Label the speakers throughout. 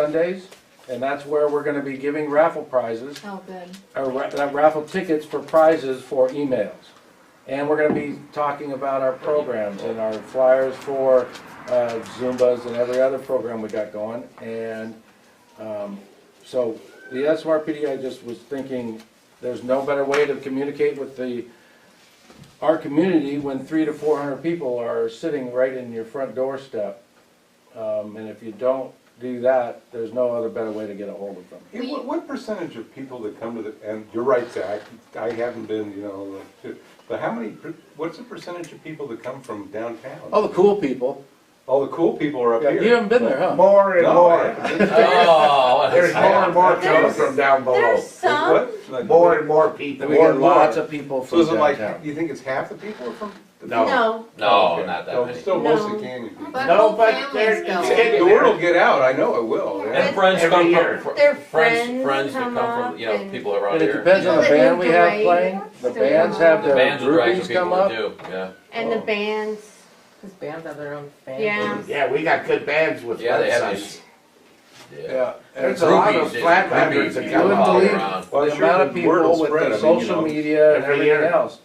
Speaker 1: Sundays, and that's where we're gonna be giving raffle prizes,
Speaker 2: Oh, good.
Speaker 1: or ra- uh, raffle tickets for prizes for emails. And we're gonna be talking about our programs and our flyers for uh, Zumbas and every other program we got going. And um, so the SMRPD, I just was thinking, there's no better way to communicate with the, our community when three to four hundred people are sitting right in your front doorstep. Um, And if you don't do that, there's no other better way to get a hold of them.
Speaker 3: Yeah, What, what percentage of people that come to the, and you're right, Zach, I haven't been, you know, like, to- but how many, per- what's the percentage of people that come from downtown?
Speaker 1: All Oh, the cool people.
Speaker 3: All the cool people are up
Speaker 1: Yeah,
Speaker 3: here.
Speaker 1: You haven't been there, huh?
Speaker 4: More and
Speaker 3: No, I
Speaker 4: more.
Speaker 3: haven't.
Speaker 5: Oh,
Speaker 4: There's more and more coming from down below.
Speaker 2: There's some,
Speaker 3: What? Like,
Speaker 4: More and more
Speaker 1: Then
Speaker 4: people.
Speaker 1: we
Speaker 4: More
Speaker 1: get
Speaker 4: and more.
Speaker 1: lots of people
Speaker 3: So
Speaker 1: from
Speaker 3: is it like,
Speaker 1: downtown.
Speaker 3: you think it's half the people are from? the-
Speaker 4: No.
Speaker 2: no,
Speaker 5: no,
Speaker 3: Okay.
Speaker 5: not that
Speaker 3: So
Speaker 5: many.
Speaker 3: Still
Speaker 2: No.
Speaker 3: mostly Canyon people.
Speaker 2: but
Speaker 4: No,
Speaker 2: whole
Speaker 4: but
Speaker 2: families
Speaker 4: there-
Speaker 2: go.
Speaker 4: it's-
Speaker 3: The word will get out, I know it will.
Speaker 2: Yeah.
Speaker 5: and friends
Speaker 4: Every
Speaker 5: come
Speaker 4: year.
Speaker 5: from fr-
Speaker 2: Their friends
Speaker 5: friends, friends that
Speaker 2: come
Speaker 5: come
Speaker 2: up
Speaker 5: from you know
Speaker 2: and-
Speaker 5: people around
Speaker 1: And it
Speaker 5: here.
Speaker 1: depends on the
Speaker 2: Yeah.
Speaker 1: band we have
Speaker 2: Parade.
Speaker 1: playing, the
Speaker 2: So-
Speaker 1: bands have
Speaker 5: the
Speaker 1: their
Speaker 5: bands will drag some
Speaker 1: groupies
Speaker 5: people
Speaker 1: come up.
Speaker 5: too. Yeah,
Speaker 2: and the
Speaker 3: Oh.
Speaker 2: bands,
Speaker 6: Because bands have their own fans.
Speaker 2: yeah.
Speaker 4: Yeah, we got good bands with
Speaker 5: yeah, they have
Speaker 4: websites.
Speaker 5: these. Yeah,
Speaker 1: Yeah,
Speaker 4: There's a lot of
Speaker 5: Groupies, they-
Speaker 4: flatlanders
Speaker 5: groupies,
Speaker 4: that
Speaker 5: they
Speaker 4: come
Speaker 1: wouldn't
Speaker 5: follow
Speaker 1: believe-
Speaker 4: out.
Speaker 5: around.
Speaker 3: Well,
Speaker 1: the
Speaker 3: sure,
Speaker 1: amount of
Speaker 3: the word
Speaker 1: people
Speaker 3: will
Speaker 1: with
Speaker 3: spread, I
Speaker 1: the
Speaker 3: mean, you
Speaker 1: social
Speaker 3: know.
Speaker 1: media and
Speaker 4: Every
Speaker 1: everything
Speaker 4: year.
Speaker 1: else.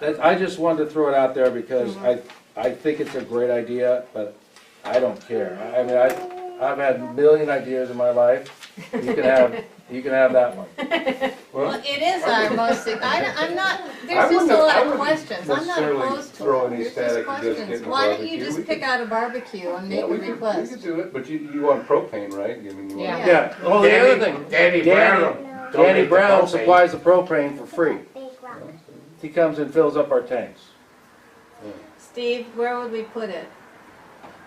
Speaker 1: That, I just wanted to throw it out there because I, I think it's a great idea, but I don't care. I mean, I, I've had a million ideas in my life. You can have, you can have that one.
Speaker 3: Well,
Speaker 2: it is our most, I, don't- I'm not,
Speaker 3: I wouldn't- I wouldn't
Speaker 2: questions,
Speaker 3: necessarily throw any static and just getting a barbecue. We could-
Speaker 2: out a barbecue and
Speaker 3: Yeah, we could, we could do it, but you, you want propane, right? I mean, you want-
Speaker 2: Yeah.
Speaker 1: Yeah, oh, the other thing,
Speaker 4: Danny Brown.
Speaker 1: Danny
Speaker 4: donated the
Speaker 1: Brown
Speaker 4: propane.
Speaker 1: supplies the propane for free. He comes and fills up our tanks.
Speaker 2: Steve, where would we put it?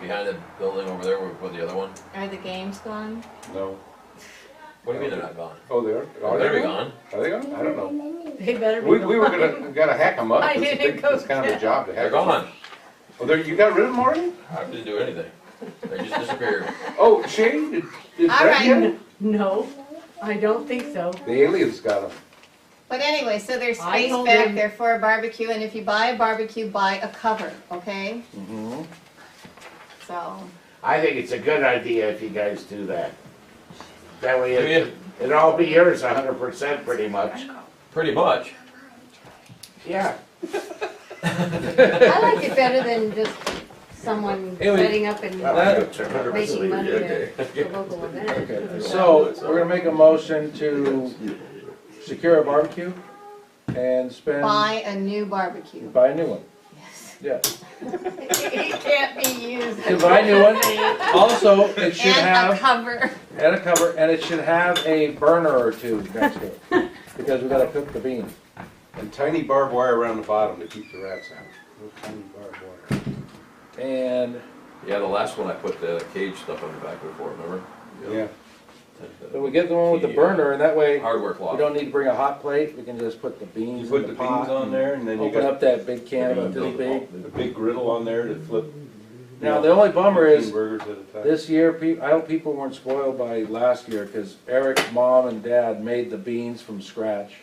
Speaker 5: behind the building over there with, with the other one.
Speaker 2: Are the games gone?
Speaker 3: No.
Speaker 5: What do you mean they're not gone?
Speaker 3: Oh, there,
Speaker 5: Oh,
Speaker 3: are
Speaker 5: they're
Speaker 3: they?
Speaker 5: gone.
Speaker 3: Are they on? I don't know.
Speaker 2: They better
Speaker 3: We, we were gonna, we gotta hack them up.
Speaker 2: I
Speaker 3: It's a
Speaker 2: didn't
Speaker 3: big-
Speaker 2: go
Speaker 3: It's kind of a job to hack.
Speaker 5: They're
Speaker 3: 'em up.
Speaker 5: gone.
Speaker 3: Oh, there, you got rid of them already?
Speaker 5: I didn't do anything. They just disappeared.
Speaker 3: Oh, Shane, did, did
Speaker 2: All
Speaker 3: Brett get
Speaker 2: right.
Speaker 3: 'em?
Speaker 6: No, I don't think so.
Speaker 3: The aliens got them.
Speaker 2: But anyway, so there's
Speaker 6: I
Speaker 2: space
Speaker 6: told
Speaker 2: back
Speaker 6: him-
Speaker 2: there for a barbecue, and if you buy a barbecue, buy a cover, okay?
Speaker 3: Mm-hmm.
Speaker 1: Mhm.
Speaker 2: So,
Speaker 7: I think it's a good idea if you guys do that. That way
Speaker 5: Yeah.
Speaker 7: it, it'll all be yours hundred percent pretty much.
Speaker 5: Pretty much.
Speaker 7: Yeah.
Speaker 2: I like it better than just someone
Speaker 1: Anyway,
Speaker 2: setting up and making money
Speaker 7: That
Speaker 2: at the local event.
Speaker 1: Okay, so we're gonna make a motion to secure a barbecue and spend, buy
Speaker 2: Buy a new barbecue.
Speaker 1: a new one.
Speaker 2: Yes.
Speaker 1: Yeah,
Speaker 2: It can't be used.
Speaker 1: to buy a new one. Also, it should
Speaker 2: And a
Speaker 1: have,
Speaker 2: cover.
Speaker 1: and a cover, and it should have a burner or two next to it, because we gotta cook the beans.
Speaker 3: And tiny barbed wire around the bottom to keep the rats out. Little Tiny barbed wire.
Speaker 1: And,
Speaker 5: Yeah, the last one I put the cage stuff on the back before. Remember?
Speaker 3: Yeah.
Speaker 1: but we get the one with the burner, and that way,
Speaker 5: Hardware
Speaker 1: we
Speaker 5: cloth.
Speaker 1: don't need to bring a hot plate, we can just put the
Speaker 3: You
Speaker 1: beans in
Speaker 3: put the
Speaker 1: the
Speaker 3: beans
Speaker 1: pot.
Speaker 3: on there and then you
Speaker 1: Open
Speaker 3: got
Speaker 1: up that big can
Speaker 5: Build
Speaker 1: of
Speaker 5: the
Speaker 1: the big.
Speaker 5: wall.
Speaker 3: the big griddle on there to flip. Oh,
Speaker 1: Now, the only bummer is,
Speaker 3: Burgers at a time.
Speaker 1: This year, peop I hope people weren't spoiled by last year, because Eric's mom and dad made the beans from scratch.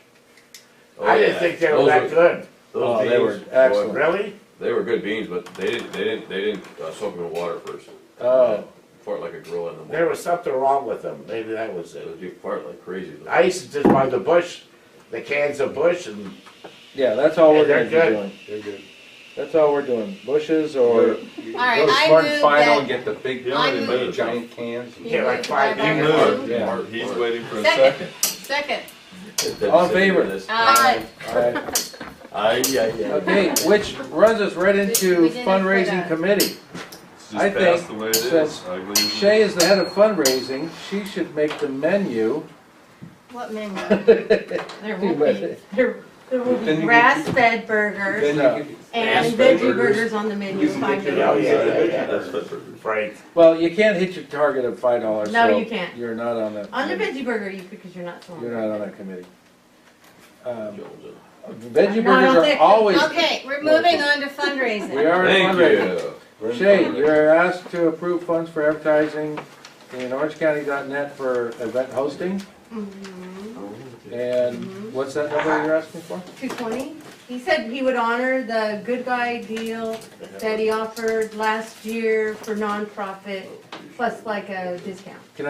Speaker 5: Oh,
Speaker 7: I didn't
Speaker 5: yeah.
Speaker 7: think they were
Speaker 5: Those
Speaker 7: that good.
Speaker 5: those
Speaker 1: Oh, they were
Speaker 5: beans, boy,
Speaker 1: excellent.
Speaker 7: Really?
Speaker 5: They were good beans, but they didn't. They didn't. They didn't uh, soak them in water first.
Speaker 1: Oh.
Speaker 5: Fart like a gorilla in the
Speaker 7: There
Speaker 5: morning.
Speaker 7: was something wrong with them. Maybe that was
Speaker 5: It
Speaker 7: it.
Speaker 5: was- You fart like crazy.
Speaker 7: I used to just buy the Bush, the cans of Bush and
Speaker 1: Yeah, that's all we're
Speaker 7: Yeah,
Speaker 1: gonna
Speaker 7: they're
Speaker 1: be
Speaker 7: good.
Speaker 1: doing.
Speaker 3: They're good.
Speaker 1: That's all we're doing, bushes or,
Speaker 3: All
Speaker 2: right, I move that-
Speaker 3: Final and get the big,
Speaker 2: I
Speaker 3: they
Speaker 2: move-
Speaker 3: make giant cans. and-
Speaker 7: Yeah, like five
Speaker 2: You
Speaker 7: years.
Speaker 2: move.
Speaker 1: yeah.
Speaker 5: He's waiting for
Speaker 2: Second, second.
Speaker 1: All in favor?
Speaker 2: Uh,
Speaker 1: Alright.
Speaker 5: Aye, yeah, yeah.
Speaker 1: Okay, which runs us right
Speaker 2: We
Speaker 1: into
Speaker 2: didn't put
Speaker 1: fundraising
Speaker 2: a-
Speaker 1: committee. I think since Shay is the head of fundraising, she should make the menu.
Speaker 2: what menu? There will be, there, there will
Speaker 3: Then
Speaker 2: be
Speaker 3: you get-
Speaker 2: grass-fed
Speaker 1: uh,
Speaker 2: burgers
Speaker 3: Then you could-
Speaker 2: and
Speaker 5: grass-fed
Speaker 2: veggie
Speaker 5: burgers.
Speaker 2: burgers on the menu,
Speaker 3: You can
Speaker 2: five
Speaker 3: get
Speaker 7: Oh,
Speaker 3: your-
Speaker 2: dollars.
Speaker 7: yeah, yeah, yeah.
Speaker 5: That's fit for-
Speaker 7: Frank.
Speaker 1: Well, you can't hit your target of five dollars,
Speaker 2: No,
Speaker 1: so
Speaker 2: you can't.
Speaker 1: you're not on that.
Speaker 2: On the veggie burger, you, because you're not selling.
Speaker 1: You're not on that committee. Um,
Speaker 5: Jones in.
Speaker 1: Veggie
Speaker 2: No, I don't
Speaker 1: burgers are
Speaker 2: think-
Speaker 1: always,
Speaker 2: Okay, we're moving on to fundraising.
Speaker 1: we are in
Speaker 5: Thank
Speaker 1: fundraising.
Speaker 5: you.
Speaker 3: We're in
Speaker 1: Shay,
Speaker 3: fundraising.
Speaker 1: you're asked to approve funds for advertising in orangecounty.net for event hosting.
Speaker 2: Mm-hmm.
Speaker 1: And what's that number you're asking for?
Speaker 2: Two twenty? He said he would honor the good guy deal that he offered last year for nonprofit
Speaker 6: plus like a discount.